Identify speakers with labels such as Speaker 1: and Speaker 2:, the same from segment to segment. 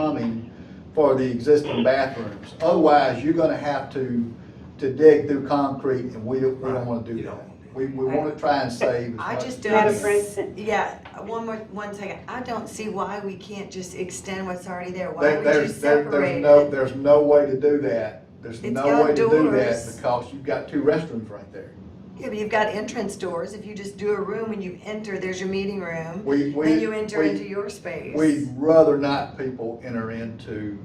Speaker 1: plumbing for the existing bathrooms. Otherwise, you're gonna have to, to dig through concrete, and we don't, we don't wanna do
Speaker 2: You
Speaker 1: that.
Speaker 2: don't wanna do that.
Speaker 1: We, we wanna try and save as
Speaker 3: I
Speaker 1: much.
Speaker 3: just
Speaker 4: Madam
Speaker 3: don't, s-
Speaker 4: President.
Speaker 3: yeah, one more, one second, I don't see why we can't just extend what's already there, why
Speaker 1: There-
Speaker 3: would you
Speaker 1: There's, there-
Speaker 3: separate
Speaker 1: there's no,
Speaker 3: it?
Speaker 1: there's no way to do that. There's
Speaker 3: It's
Speaker 1: no way to do that
Speaker 3: outdoors.
Speaker 1: because you've got two restrooms right there.
Speaker 3: Yeah, but you've got entrance doors, if you just do a room and you enter, there's your meeting room,
Speaker 1: We, we.
Speaker 3: then you enter
Speaker 1: we-
Speaker 3: into your space.
Speaker 1: We'd rather not people enter into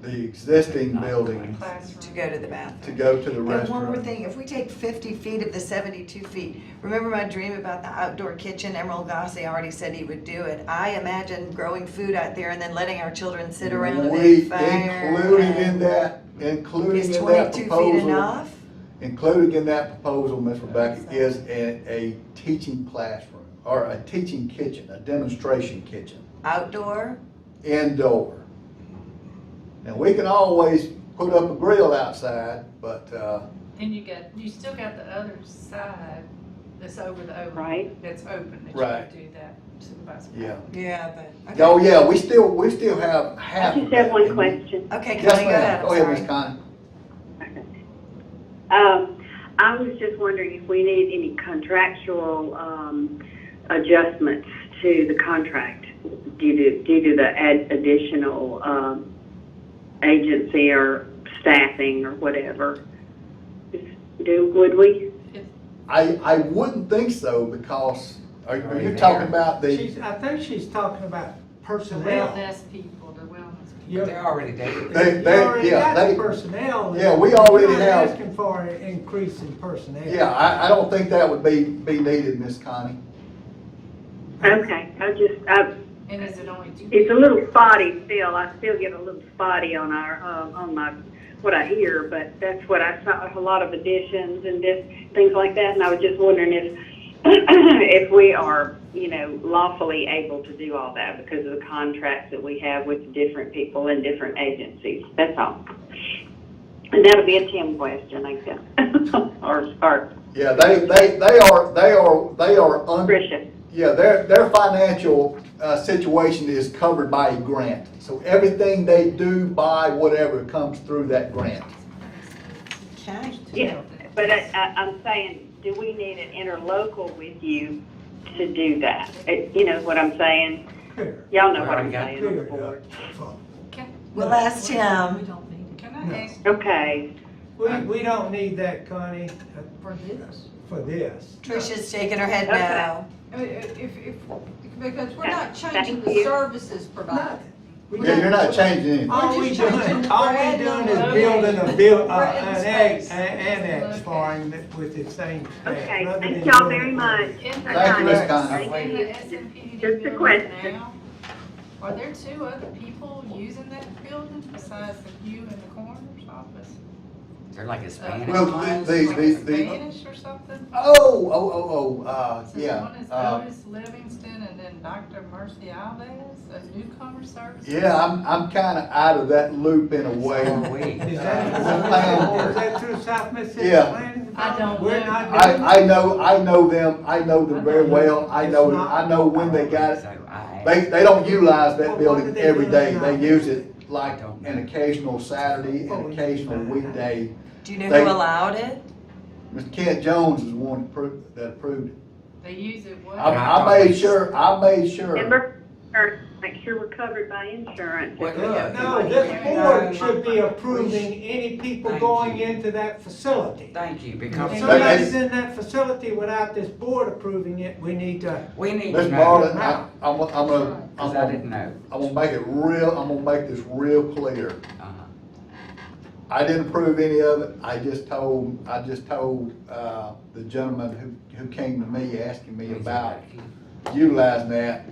Speaker 1: the existing building
Speaker 3: To go to the bathroom.
Speaker 1: to go to the restroom.
Speaker 3: And one more thing, if we take fifty feet of the seventy-two feet, remember my dream about the outdoor kitchen, Emerald Gossie already said he would do it. I imagine growing food out there and then letting our children sit around a
Speaker 1: We-
Speaker 3: big fire.
Speaker 1: Including in
Speaker 3: and-
Speaker 1: that, including
Speaker 3: Is
Speaker 1: in that
Speaker 3: twenty-two feet
Speaker 1: proposal,
Speaker 3: enough?
Speaker 1: including in that proposal, Ms. Rebecca, is a, a teaching classroom or a teaching kitchen, a demonstration kitchen,
Speaker 3: Outdoor?
Speaker 1: indoor. And we can always put up a grill outside, but, uh,
Speaker 5: And you got, you still got the other side that's over the open.
Speaker 4: Right.
Speaker 5: That's open, that you
Speaker 1: Right.
Speaker 5: could do that Supervisor.
Speaker 1: yeah.
Speaker 3: Yeah, but. okay.
Speaker 1: Oh, yeah, we still, we still have half
Speaker 4: I
Speaker 1: of
Speaker 4: just have one
Speaker 1: that.
Speaker 4: question.
Speaker 3: Okay,
Speaker 1: Yes,
Speaker 3: Connie, go
Speaker 1: ma'am.
Speaker 3: ahead,
Speaker 1: Go
Speaker 3: I'm
Speaker 1: ahead, Ms.
Speaker 3: sorry.
Speaker 1: Connie.
Speaker 4: Um, I was just wondering if we need any contractual, um, adjustments to the contract due to, due to the ad- additional, um, agency or staffing or whatever. Do, would we?
Speaker 1: I, I wouldn't think so because, are are you
Speaker 2: Already
Speaker 1: talking about the,
Speaker 6: She's, I think she's talking about
Speaker 5: The
Speaker 6: personnel.
Speaker 5: wellness people, the wellness. people.
Speaker 6: You
Speaker 2: They're already there.
Speaker 1: They-
Speaker 6: you
Speaker 1: they-
Speaker 6: already
Speaker 1: yeah,
Speaker 6: got
Speaker 1: they-
Speaker 6: the personnel.
Speaker 1: Yeah, we already
Speaker 6: You're not
Speaker 1: have-
Speaker 6: Asking for an increase in personnel.
Speaker 1: yeah, I, I don't think that would be, be needed, Miss Connie.
Speaker 4: Okay, I just, I,
Speaker 5: And is it only two?
Speaker 4: it's a little spotty still. I still get a little spotty on our, uh, on my, what I hear, but that's what I saw, a lot of additions and this, things like that. And I was just wondering if, if we are, you know, lawfully able to do all that because of the contracts that we have with different people and different agencies. That's all. And that'll be a Tim question, I guess, or, or
Speaker 1: Yeah, they, they, they are, they are, they are under,
Speaker 4: Tricia.
Speaker 1: yeah, their, their financial, uh, situation is covered by a grant. So everything they do, buy, whatever, comes through that grant.
Speaker 3: Okay.
Speaker 4: Yeah, But I, I, I'm saying, do we need an interlocal with you to do that? It- You know what I'm saying?
Speaker 6: Clear,
Speaker 4: Y'all know
Speaker 2: We
Speaker 4: what
Speaker 2: already
Speaker 4: I'm
Speaker 2: got
Speaker 4: saying on
Speaker 6: clear
Speaker 4: the
Speaker 6: it up.
Speaker 4: board.
Speaker 3: We'll ask
Speaker 5: We
Speaker 3: Tim.
Speaker 5: don't need it. Can I ask
Speaker 4: Okay,
Speaker 6: We, we don't need that, Connie, uh,
Speaker 5: for this?
Speaker 6: for this.
Speaker 3: Tricia's shaking her head
Speaker 4: Okay.
Speaker 3: no.
Speaker 7: I mean, If, if, because we're not changing
Speaker 4: Thank
Speaker 7: the
Speaker 4: you.
Speaker 7: services provided.
Speaker 6: We Oh,
Speaker 1: Yeah, you're not changing anything.
Speaker 6: All we
Speaker 7: We're just
Speaker 6: doing,
Speaker 7: changing-
Speaker 6: all
Speaker 7: we're
Speaker 6: we
Speaker 7: adding
Speaker 6: doing
Speaker 7: on
Speaker 6: is
Speaker 7: the
Speaker 6: building a
Speaker 7: location.
Speaker 6: bill,
Speaker 7: We're
Speaker 6: uh,
Speaker 7: adding
Speaker 6: an annex,
Speaker 7: space.
Speaker 6: an annex for him with the same staff.
Speaker 4: okay.
Speaker 6: nothing
Speaker 4: Thank
Speaker 6: to do
Speaker 4: y'all
Speaker 6: with
Speaker 4: very
Speaker 6: it.
Speaker 4: much.
Speaker 1: Thank you, Ms. Connie.
Speaker 5: In the SMPD
Speaker 4: Just a
Speaker 5: building
Speaker 4: question.
Speaker 5: now, Are there two other people using that building besides the you and the coroner's office?
Speaker 2: They're like
Speaker 5: Uh,
Speaker 2: Hispanic.
Speaker 1: Well, the-
Speaker 5: one's
Speaker 1: the-
Speaker 5: like
Speaker 1: the- the-
Speaker 5: Spanish or something?
Speaker 1: Oh, oh, oh, oh, uh,
Speaker 5: So
Speaker 1: yeah.
Speaker 5: one is
Speaker 1: uh,
Speaker 5: Otis Livingston and then Dr. Mercy Alves, a newcomer service.
Speaker 1: Yeah, I'm, I'm kinda out of that loop in a way.
Speaker 2: So are we.
Speaker 6: Is
Speaker 1: Well,
Speaker 6: that, is that through South Mississippi
Speaker 1: Yeah.
Speaker 6: Planning Department?
Speaker 5: I don't
Speaker 6: We're
Speaker 5: know.
Speaker 6: not doing that.
Speaker 1: I, I know, I know them, I know them very well, I know, I know when they got it.
Speaker 2: So I-
Speaker 1: They, they don't utilize that
Speaker 6: Well, what
Speaker 1: building
Speaker 6: do they
Speaker 1: every
Speaker 6: do
Speaker 1: day,
Speaker 6: now?
Speaker 1: they use it like an occasional Saturday, an occasional weekday.
Speaker 3: Do you know
Speaker 1: They-
Speaker 3: who allowed it?
Speaker 1: Mr. Kent Jones is the one that approved, that approved it.
Speaker 5: They use it what?
Speaker 1: I, I made sure, I made sure,
Speaker 4: Remember, or make sure we're covered by insurance.
Speaker 2: What-
Speaker 6: No, this board should be approving any people
Speaker 2: Thank
Speaker 6: going
Speaker 2: you.
Speaker 6: into that facility.
Speaker 2: Thank you,
Speaker 6: If
Speaker 1: But
Speaker 2: because
Speaker 1: it's-
Speaker 6: somebody's in that facility without this board approving it, we need to,
Speaker 2: we need to
Speaker 1: Ms.
Speaker 2: know,
Speaker 1: Marlin, I, I'm, gonna- I'm gonna, I'm
Speaker 2: because I
Speaker 1: gonna,
Speaker 2: didn't know.
Speaker 1: I'm gonna make it real, I'm gonna make this real clear.
Speaker 2: Uh-huh.
Speaker 1: I didn't approve any of it, I just told, I just told, uh, the gentleman who, who came to me asking me about utilizing that.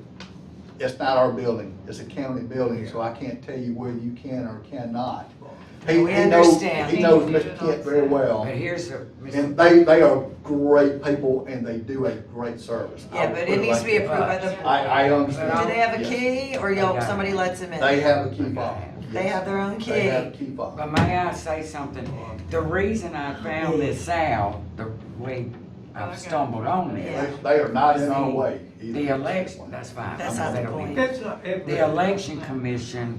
Speaker 1: It's not our building, it's a county building, so I can't tell you whether you can or cannot. He-
Speaker 3: We
Speaker 1: he knows-
Speaker 3: understand.
Speaker 1: He knows Mr. Kent very well,
Speaker 2: But here's the,
Speaker 1: and
Speaker 2: Mr.
Speaker 1: they, they are great people and they do a great service. I
Speaker 3: Yeah,
Speaker 1: would
Speaker 3: but it needs to be
Speaker 1: like
Speaker 3: approved by the
Speaker 1: that. I, I
Speaker 3: Do
Speaker 1: understand.
Speaker 3: they have a
Speaker 1: Yes.
Speaker 3: key or y'all, somebody lets them in?
Speaker 1: They have a key fob.
Speaker 3: They have their own
Speaker 1: They
Speaker 3: key.
Speaker 1: have a key fob.
Speaker 2: but may I say something? The reason I found this out, the way
Speaker 3: Oh,
Speaker 2: I've
Speaker 5: Okay.
Speaker 2: stumbled on
Speaker 1: They
Speaker 2: this.
Speaker 1: they are not in our way. either.
Speaker 2: The election, that's fine.
Speaker 3: That's
Speaker 2: I'm
Speaker 3: not the
Speaker 2: gonna be-
Speaker 3: point.
Speaker 6: That's not every.
Speaker 2: The election commission